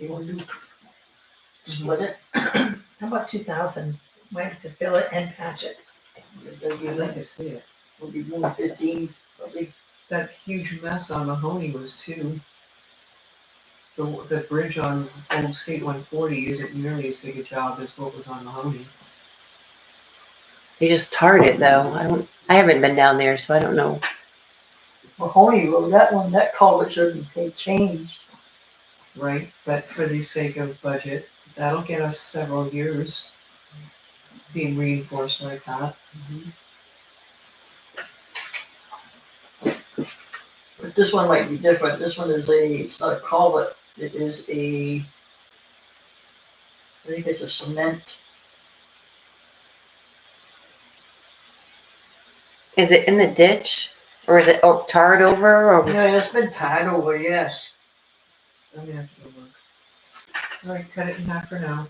We'll do split it. How about two thousand? Might have to fill it and patch it. It'll be I'd like like, to see it. it'll be one fifteen, probably. That huge mess on Mahoney was too. The, the bridge on Old State one forty isn't nearly as big a job as what was on Mahoney. They just tarred it though. I don't. I haven't been down there, so I don't know. Mahoney Road, that one, that culvert shouldn't be changed. Right, but for the sake of budget, that'll get us several years being reinforced like that. But this one might be different. This one is a, it's not a culvert, it is a, I think it's a cement. Is it in the ditch or is it oh, tarred over? Or Yeah, it's been tied over, yes. I'm gonna have to go look. All right, cut it in half for now.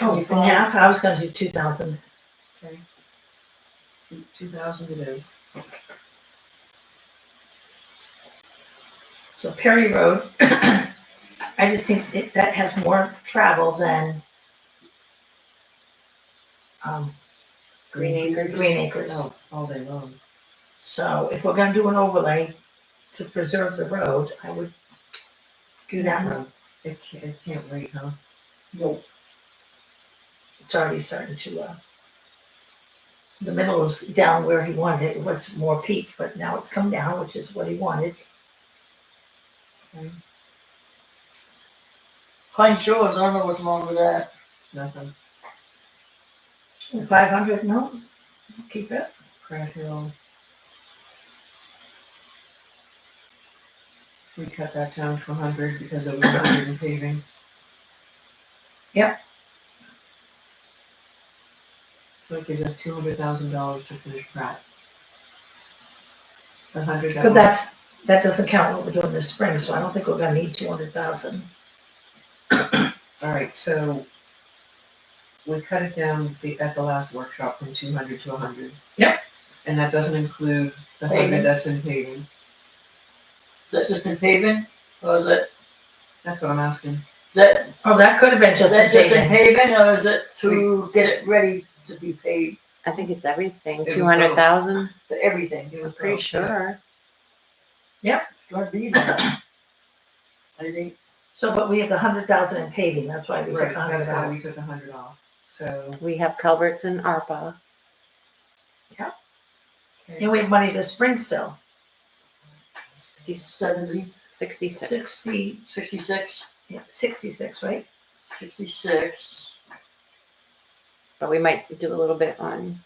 Oh, for half, I was gonna do two thousand. Two, two thousand it is. So Perry Road, I just think it- that has more travel than um, Green Acres? Green Acres. Oh, all day long. So if we're gonna do an overlay to preserve the road, I would do that road. It can't, it can't wait, huh? No, It's already starting to, uh, the middle is down where he wanted it. It was more peak, but now it's come down, which is what he wanted. Pine Shores, I don't know what's wrong with that. Nothing. Five hundred, no, keep it. Pratt Hill. We cut that down to hundred because it was hundred in paving. Yep. So it gives us two hundred thousand dollars to finish Pratt. The hundred that But we- that's, that doesn't count what we're doing this spring, so I don't think we're gonna need two hundred thousand. All right, so we cut it down the, at the last workshop from two hundred to hundred. Yep. And that doesn't include the Paving. hundred that's in paving. Is that just in paving? Or is it, That's what I'm asking. is that, Oh, that could have been is just a that just in paving. paving or is it to get it ready to be paved I think it's everything. was Two hundred thousand. for everything? It was Pretty both, yeah. sure. It's gonna be that. I think So, but we have the hundred thousand in paving, that's why we took Right, hundred that's why out. we took a hundred off, so. We have culverts in ARPA. And we have money this spring still, Sixty-seven. Sixty-six. sixty, sixty-six, yeah, sixty-six, right? sixty-six. But we might do a little bit on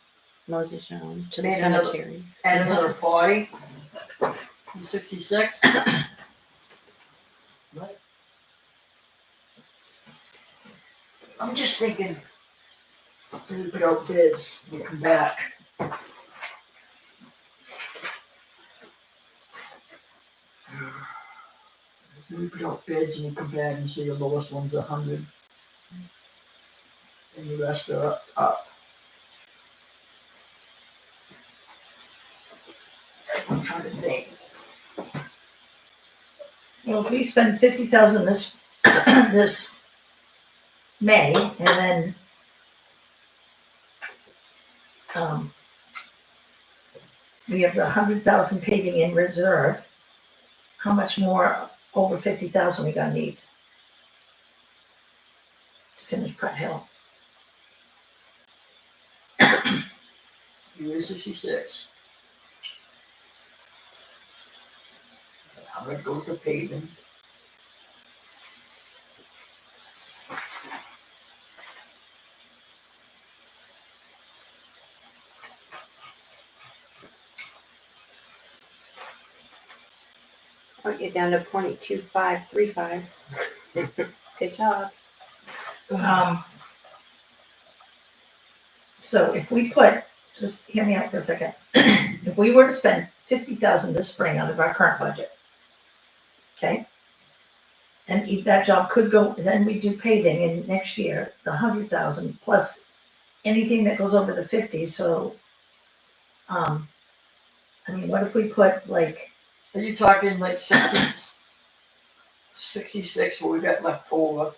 Moses Jones to the Made another- cemetery. Add another forty. And Sixty-six. Right. I'm just thinking, so we put out bids, we come back. So we put out bids and we come back and see the lowest one's a hundred. And the rest are up, up. I'm trying to think. Well, if we spend fifty thousand this, this May, and then um, we have the hundred thousand paving in reserve, how much more over fifty thousand we gonna need? To finish Pratt Hill, You were sixty-six. How much goes to paving? I'll get down to point two five three five. Good job. um. So if we put, just hear me out for a second, if we were to spend fifty thousand this spring out of our current budget, okay? And if that job could go, then we do paving in next year, the hundred thousand plus anything that goes over the fifty, so. Um, I mean, what if we put like Are you talking like sixty, sixty-six, what we got left over.